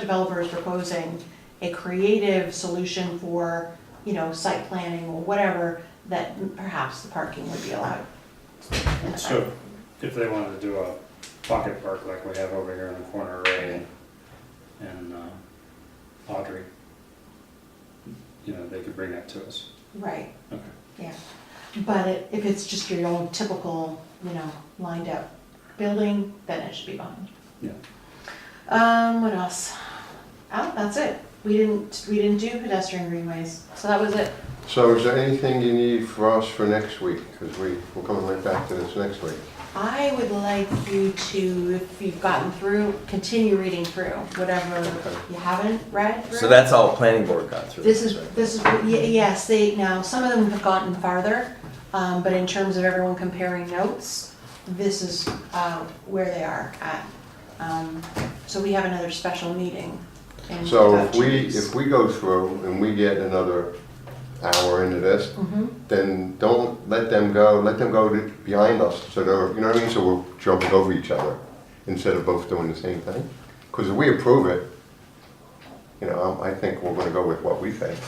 developer is proposing a creative solution for, you know, site planning or whatever, that perhaps the parking would be allowed. So if they wanted to do a pocket park like we have over here in the corner of Ray and, and uh, Audrey, you know, they could bring that to us. Right, Okay. yeah. But it- if it's just your old typical, you know, lined up building, then it should be fine. Yeah. Um, what else? Oh, that's it. We didn't, we didn't do pedestrian greenways, so that was it. So is there anything you need for us for next week? Because we, we're coming right back to this next week. I would like you to, if you've gotten through, continue reading through whatever you haven't read through. So that's all planning board got through. This is, right? this is, y- yes, they, now, some of them have gotten farther, um, but in terms of everyone comparing notes, this is, uh, where they are at. Um, so we have another special meeting in So about if two we, weeks. if we go through and we get another hour into this, Mhm. then don't let them go, let them go to- behind us, so they're, you know what I mean? So we're jumping over each other instead of both doing the same thing. Because if we approve it, you know, I I think we're gonna go with what we think.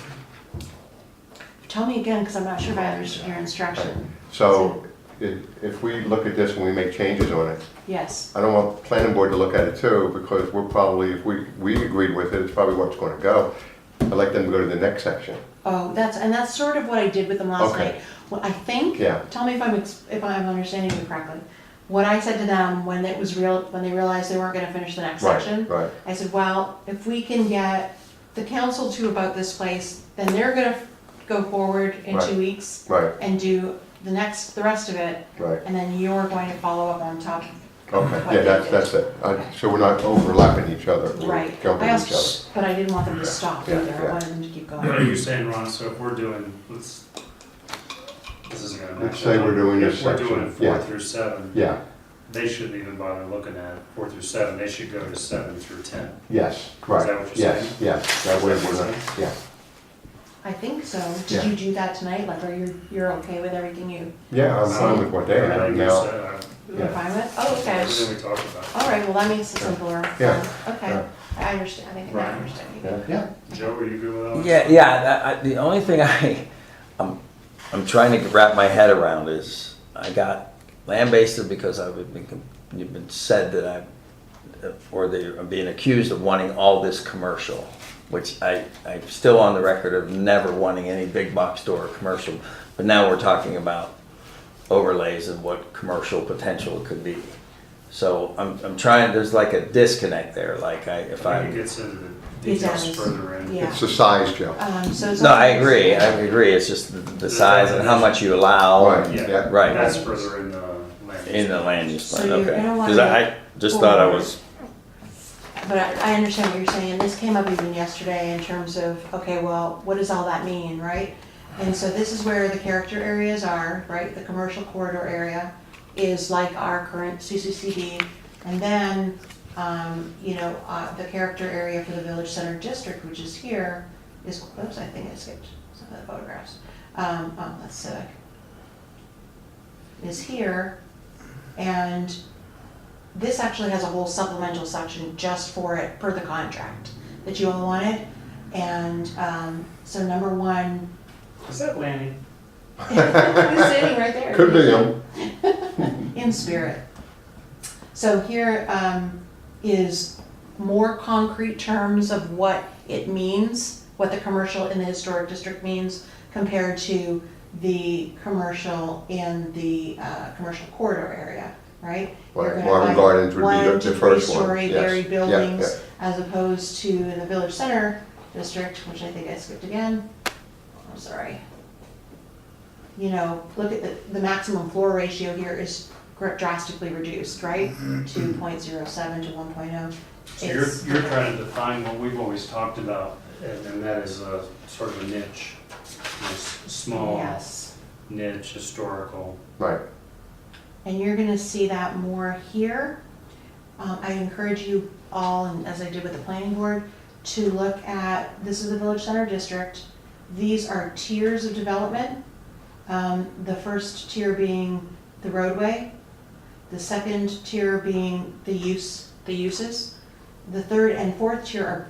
Tell me again, cause I'm not sure if I understood your instruction. So if, if we look at this and we make changes on it, Yes, I don't want the planning board to look at it too, because we're probably, if we, we agreed with it, it's probably what's gonna go. I'd like them to go to the next section. oh, that's, and that's sort of what I did with them last Okay. night. Well, I think, Yeah. tell me if I'm, ex- if I'm understanding you correctly. What I said to them when it was real, when they realized they weren't gonna finish the next section. Right, right. I said, well, if we can get the council to about this place, then they're gonna go forward in Right. two weeks Right, and do the next, the rest of it, right. and then you're going to follow up on top. Okay, yeah, that's, that's it. I- So we're not overlapping each other, we're Right. jumping I each also- other. But I didn't want them to stop Yeah, either, I yeah. wanted them to keep What are going. you saying, Ron? So if we're doing, let's, this isn't gonna match. Let's say we're doing this If we're doing section, yeah. four through seven, Yeah, they shouldn't even bother looking at four through seven. They should go to seven through ten. yes, Is that right, what you're yes, yes. That way we're not, yeah. I think so, Yeah. did you do that tonight, like, are you, you're okay with everything you, Yeah, I'm fine with what they I have think now. so, uh, you're Yeah. fine with? Oh, okay, Everything we talked about. all right, well, that makes it simpler. Um, Yeah. Okay, Yeah. I understand, I think I Right. understand. Yeah, yeah. Joe, are you good with that? Yeah, yeah, that, I, the only thing I, I'm, I'm trying to wrap my head around is, I got lambasted because I've been, com- you've been said that I'm, or they are being accused of wanting all this commercial, which I, I'm still on the record of never wanting any big box store or commercial, but now we're talking about overlays and what commercial potential it could be. So I'm, I'm trying, there's like a disconnect there, like I, if I think it I, gets into the It details does. further in. Yeah. It's the size, Joe. Um, so it's. no, I agree, I agree, it's just the- the size and how much you allow. Right, Yeah. yeah. Right. That's further in the land. In the land use So plan, you're okay. gonna Because wanna I just thought I was, But I I understand what you're saying, this came up even yesterday in terms of, okay, well, what does all that mean, right? And so this is where the character areas are, right, the commercial corridor area is like our current CCCD. And then, um, you know, uh, the character area for the village center district, which is here, is, oops, I think I skipped some of the photographs. Um, oh, that's civic. Is here, and this actually has a whole supplemental section just for it, per the contract, that you all wanted. And um, so number one, Is that landing? it's sitting right there. Could be him. In spirit. So here um, is more concrete terms of what it means, what the commercial in the historic district means compared to the commercial in the uh, commercial corridor area, right? You're Right, gonna Marvin have Gardens would be the- one to the first three one, Story yes. buried Yeah, buildings as opposed to in the village center district, which I think I skipped again. I'm sorry. You know, look at the, the maximum floor ratio here is gr- drastically reduced, right? Two point zero seven to one Mm-hmm. oh. So you're, you're trying to define what we've always talked about, and and that is a sort of a niche. This Small Yes, niche, historical. Right, and you're gonna see that more here. Um, I encourage you all, and as I did with the planning board, to look at, this is the village center district. These are tiers of development. Um, the first tier being the roadway, the second tier being the use, the uses. The third and fourth tier are